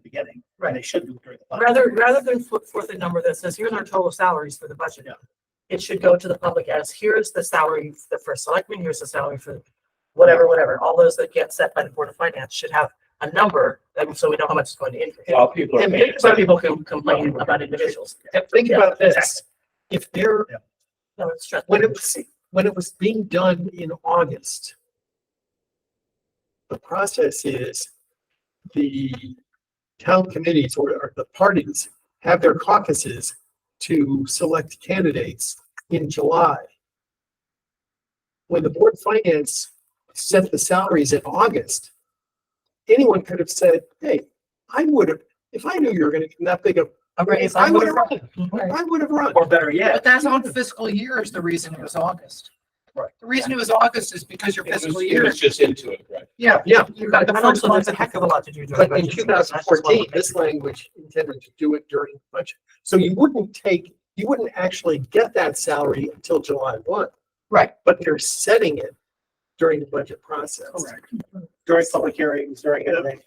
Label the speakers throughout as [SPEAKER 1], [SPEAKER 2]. [SPEAKER 1] beginning. and They should do it during the budget.
[SPEAKER 2] Rather, rather than put forth a number that says, here's our total salaries for the budget.
[SPEAKER 1] Yeah.
[SPEAKER 2] It should go to the public as, here's the salary for the first selectman, here's the salary for whatever, whatever. All those that get set by the Board of Finance should have a number, and so we know how much is going to increase.
[SPEAKER 3] While people are
[SPEAKER 2] And
[SPEAKER 3] paying
[SPEAKER 2] some
[SPEAKER 3] attention.
[SPEAKER 2] people can complain about individuals.
[SPEAKER 3] And think about this, if there,
[SPEAKER 2] No, it's just-
[SPEAKER 3] when it was, when it was being done in August, the process is the town committees or, or the parties have their caucuses to select candidates in July. When the board of finance set the salaries in August, anyone could have said, hey, I would have, if I knew you were gonna get that big of,
[SPEAKER 2] A raise,
[SPEAKER 3] I
[SPEAKER 2] I
[SPEAKER 3] would
[SPEAKER 2] would've-
[SPEAKER 3] have run, I would have run.
[SPEAKER 1] Or better yet,
[SPEAKER 4] But that's on fiscal year is the reason it was August.
[SPEAKER 1] Right.
[SPEAKER 4] The reason it was August is because your fiscal year is,
[SPEAKER 5] just into it, right?
[SPEAKER 4] yeah,
[SPEAKER 3] Yeah,
[SPEAKER 4] you got the
[SPEAKER 2] And
[SPEAKER 4] first
[SPEAKER 2] also,
[SPEAKER 4] one.
[SPEAKER 2] there's a heck of a lot to do. during
[SPEAKER 3] But in
[SPEAKER 2] budget
[SPEAKER 3] two
[SPEAKER 2] season. That's
[SPEAKER 3] thousand
[SPEAKER 2] just one
[SPEAKER 3] fourteen,
[SPEAKER 2] thing.
[SPEAKER 3] this language intended to do it during budget. So you wouldn't take, you wouldn't actually get that salary until July one.
[SPEAKER 4] Right.
[SPEAKER 3] But they're setting it during the budget process.
[SPEAKER 1] during public hearings, during anything.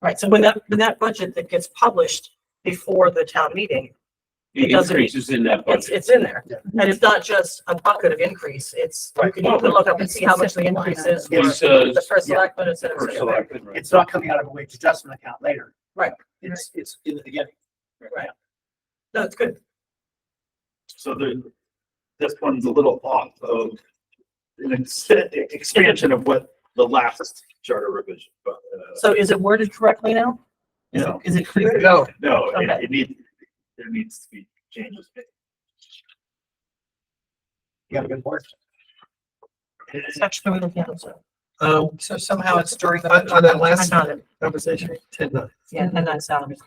[SPEAKER 2] Right, so when that, when that budget that gets published before the town meeting, It
[SPEAKER 5] It
[SPEAKER 2] doesn't-
[SPEAKER 5] increases in that
[SPEAKER 2] it's,
[SPEAKER 5] budget.
[SPEAKER 2] it's in there.
[SPEAKER 3] Yeah.
[SPEAKER 2] And it's not just a bucket of increase, it's, you can you can look up and see how much the increase is for
[SPEAKER 5] It's, uh,
[SPEAKER 2] the first
[SPEAKER 1] Yeah.
[SPEAKER 2] selectman, et cetera, et
[SPEAKER 5] first
[SPEAKER 2] cetera.
[SPEAKER 5] selected, right?
[SPEAKER 1] It's not coming out of a wage adjustment account later.
[SPEAKER 2] Right.
[SPEAKER 1] It's, it's in the beginning.
[SPEAKER 2] Right. No, it's good.
[SPEAKER 1] So the, this one's a little off of an ex- expansion of what the last charter revision, but, uh,
[SPEAKER 2] So is it worded correctly now? Is it,
[SPEAKER 1] No.
[SPEAKER 2] is it clear?
[SPEAKER 3] No,
[SPEAKER 1] no, it,
[SPEAKER 2] Okay.
[SPEAKER 1] it needs, there needs to be changes. made. You got a good point.
[SPEAKER 2] It's actually written down, so.
[SPEAKER 3] um,
[SPEAKER 4] So somehow it's during the.
[SPEAKER 3] on, on that
[SPEAKER 2] I
[SPEAKER 3] last
[SPEAKER 2] found it.
[SPEAKER 3] conversation, uh, ten nine.
[SPEAKER 2] Yeah, and that's salaries.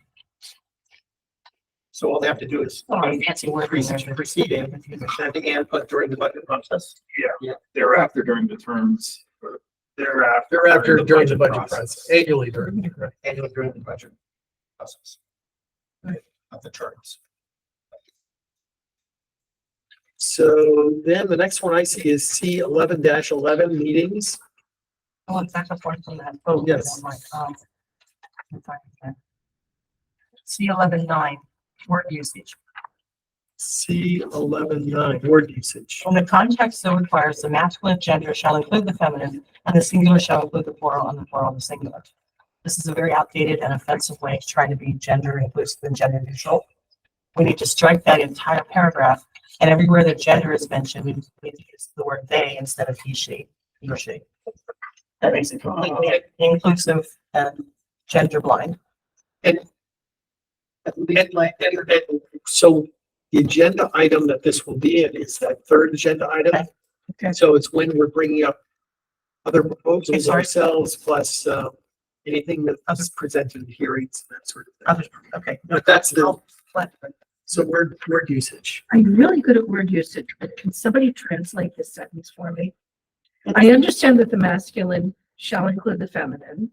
[SPEAKER 3] So all they have to do is
[SPEAKER 2] Oh, fancy word.
[SPEAKER 3] increase each preceding and the input during the budget process.
[SPEAKER 1] Thereafter during the terms, or thereafter.
[SPEAKER 3] Thereafter, during the budget process,
[SPEAKER 1] process.
[SPEAKER 3] annually during, annually during the budget process. Of the terms. So then the next one I see is C eleven eleven meetings.
[SPEAKER 2] Oh, it's back up one from that. Oh,
[SPEAKER 3] yes.
[SPEAKER 2] C eleven nine, word usage.
[SPEAKER 3] C eleven nine, word usage.
[SPEAKER 2] When the context so requires, the masculine gender shall include the feminine, and the singular shall include the plural, and the plural the singular. This is a very outdated and offensive way to try to be gender inclusive and gender neutral. We need to strike that entire paragraph, and everywhere that gender is mentioned, we we need to use the word they instead of he, she, he or she. That makes it completely inclusive and gender blind.
[SPEAKER 3] And like, and, and so the agenda item that this will be in is that third agenda item.
[SPEAKER 2] Okay.
[SPEAKER 3] So it's when we're bringing up other proposals
[SPEAKER 2] sorry.
[SPEAKER 3] ourselves plus, uh, anything that us presented in hearings, and that sort of thing.
[SPEAKER 2] Other- Okay.
[SPEAKER 3] But that's the,
[SPEAKER 2] What?
[SPEAKER 3] so word, word usage.
[SPEAKER 6] I'm really good at word usage, but can somebody translate this sentence for me? I understand that the masculine shall include the feminine.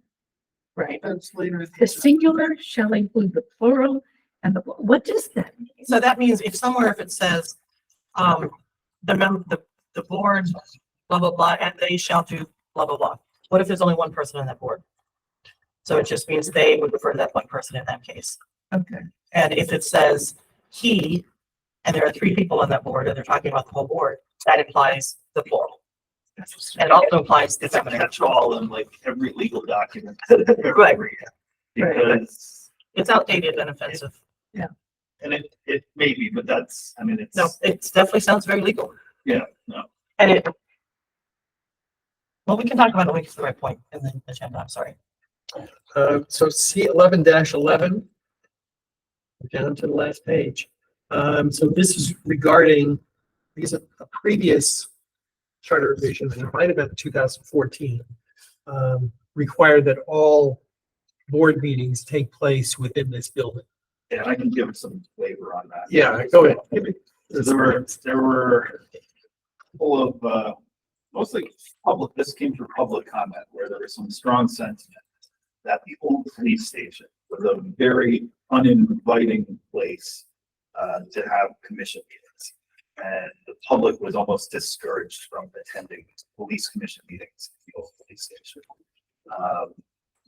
[SPEAKER 2] Right.
[SPEAKER 6] The singular shall include the plural and the, what does that mean?
[SPEAKER 2] So that means if somewhere if it says, um, the mem, the, the board, blah, blah, blah, and they shall do blah, blah, blah. What if there's only one person on that board? So it just means they would refer to that one person in that case.
[SPEAKER 6] Okay.
[SPEAKER 2] And if it says he, and there are three people on that board, and they're talking about the whole board, that implies the plural. And it also implies the
[SPEAKER 1] It's a
[SPEAKER 2] feminine.
[SPEAKER 1] catch-all in like every legal document.
[SPEAKER 2] Right.
[SPEAKER 1] Because,
[SPEAKER 2] It's outdated and offensive.
[SPEAKER 1] and it, it may be, but that's, I mean, it's.
[SPEAKER 2] No, it definitely sounds very legal.
[SPEAKER 1] Yeah, no.
[SPEAKER 2] And it. Well, we can talk about it when we get to the right point in the agenda, I'm sorry.
[SPEAKER 3] Uh, so C eleven eleven. Down to the last page. Um, so this is regarding, these are a previous charter revision, and it might have been two thousand fourteen. Um, required that all board meetings take place within this building.
[SPEAKER 1] Yeah, I can give some flavor on that.
[SPEAKER 3] Yeah, go ahead. Give me-
[SPEAKER 1] There were, there were a couple of, uh, mostly public, this came through public comment where there was some strong sentiment that the old police station was a very uninviting place uh, to have commission meetings. And the public was almost discouraged from attending police commission meetings at the old police station. Um,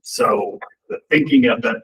[SPEAKER 1] So the thinking at that